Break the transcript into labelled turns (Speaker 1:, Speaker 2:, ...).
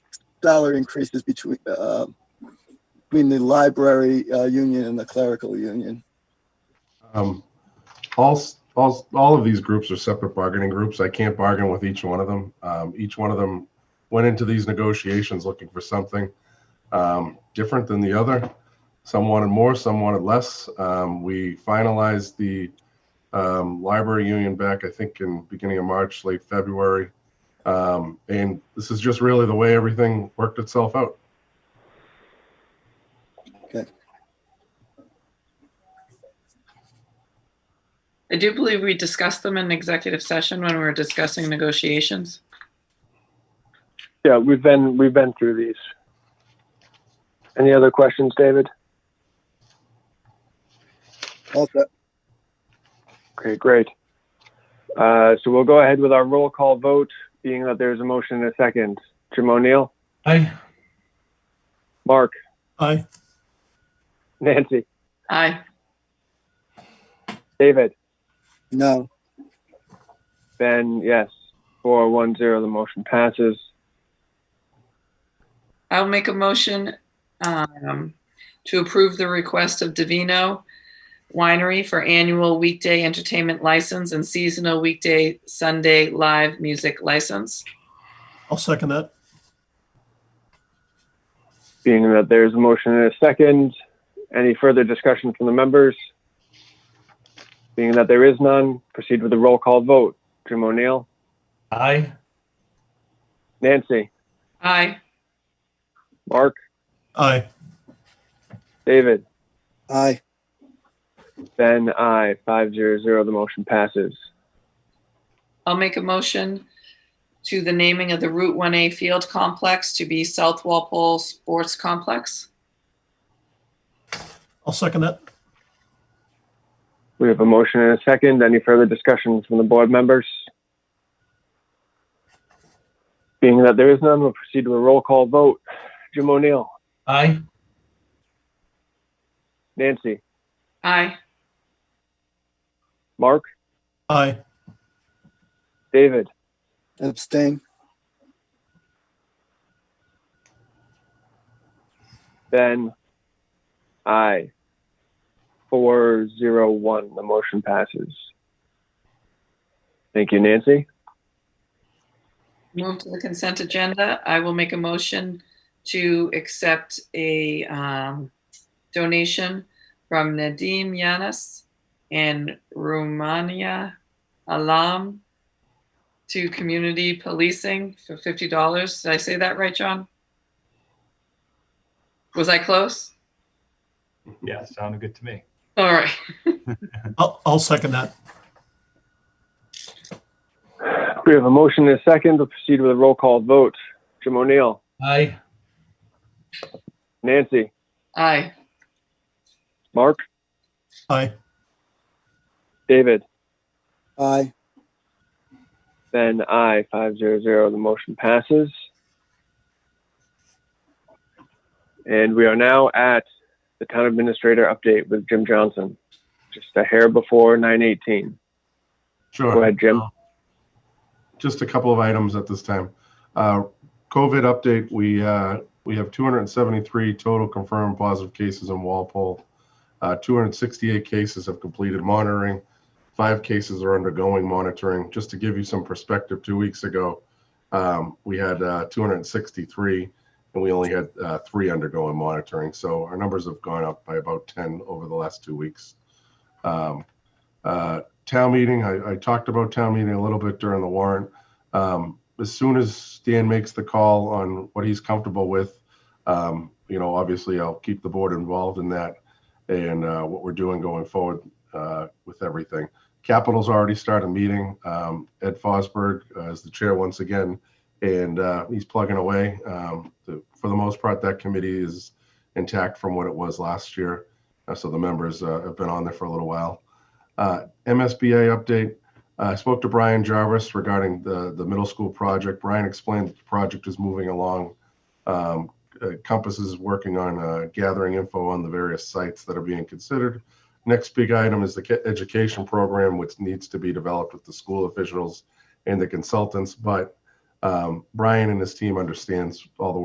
Speaker 1: dollar increases between, uh, between the library, uh, union and the clerical union.
Speaker 2: Um, all, s- all, s- all of these groups are separate bargaining groups. I can't bargain with each one of them. Um, each one of them went into these negotiations looking for something um, different than the other. Some wanted more, some wanted less. Um, we finalized the um, library union back, I think, in beginning of March, late February. Um, and this is just really the way everything worked itself out.
Speaker 3: I do believe we discussed them in executive session when we were discussing negotiations.
Speaker 4: Yeah, we've been, we've been through these. Any other questions, David?
Speaker 1: Also,
Speaker 4: Okay, great. Uh, so we'll go ahead with our roll call vote, being that there's a motion and a second. Jim O'Neill,
Speaker 5: Aye.
Speaker 4: Mark,
Speaker 5: Aye.
Speaker 4: Nancy,
Speaker 3: Aye.
Speaker 4: David,
Speaker 1: no,
Speaker 4: Ben, yes. Four, one, zero, the motion passes.
Speaker 3: I'll make a motion um, to approve the request of Divino Winery for annual weekday entertainment license and seasonal weekday Sunday live music license.
Speaker 5: I'll second that.
Speaker 4: Being that there's a motion and a second, any further discussion from the members? Being that there is none, proceed with the roll call vote. Jim O'Neill,
Speaker 5: Aye.
Speaker 4: Nancy,
Speaker 3: Aye.
Speaker 4: Mark,
Speaker 5: Aye.
Speaker 4: David,
Speaker 1: aye,
Speaker 4: Ben, I Five zero zero. The motion passes.
Speaker 3: I'll make a motion to the naming of the Route 1A Field Complex to be South Walpole Sports Complex.
Speaker 5: I'll second that.
Speaker 4: We have a motion and a second. Any further discussion from the board members? Being that there is none, we'll proceed to a roll call vote. Jim O'Neill,
Speaker 5: Aye.
Speaker 4: Nancy,
Speaker 3: Aye.
Speaker 4: Mark,
Speaker 5: Aye.
Speaker 4: David,
Speaker 1: abstain,
Speaker 4: Ben, I Four zero one. The motion passes. Thank you, Nancy.
Speaker 3: Move to the consent agenda. I will make a motion to accept a um, donation from Nadim Yanis and Romania Alam to community policing for fifty dollars. Did I say that right, John? Was I close?
Speaker 6: Yeah, sounded good to me.
Speaker 3: All right.
Speaker 5: I'll, I'll second that.
Speaker 4: We have a motion and a second. We'll proceed with a roll call vote. Jim O'Neill,
Speaker 5: Aye.
Speaker 4: Nancy,
Speaker 3: Aye.
Speaker 4: Mark,
Speaker 5: Aye.
Speaker 4: David,
Speaker 1: aye,
Speaker 4: Ben, I five zero zero. The motion passes. And we are now at the town administrator update with Jim Johnson. Just a hair before nine eighteen.
Speaker 2: Sure.
Speaker 4: Go ahead, Jim.
Speaker 2: just a couple of items at this time. Uh, COVID update, we, uh, we have 273 total confirmed positive cases in Walpole. Uh, 268 cases have completed monitoring. Five cases are undergoing monitoring. Just to give you some perspective, two weeks ago, um, we had uh, 263 and we only had uh, three undergoing monitoring. So our numbers have gone up by about 10 over the last two weeks. Um, uh, town meeting, I, I talked about town meeting a little bit during the warrant. Um, as soon as Dan makes the call on what he's comfortable with, um, you know, obviously I'll keep the board involved in that and, uh, what we're doing going forward, uh, with everything. Capital's already started meeting. Um, Ed Fosberg uh, is the chair once again, and, uh, he's plugging away. Um, the, for the most part, that committee is intact from what it was last year. Uh, so the members, uh, have been on there for a little while. Uh, MSBA update. Uh, I spoke to Brian Jarvis regarding the, the middle school project. Brian explained that the project is moving along. Um, uh, Compass is working on uh, gathering info on the various sites that are being considered. Next big item is the ca- education program, which needs to be developed with the school officials and the consultants. But um, Brian and his team understands all the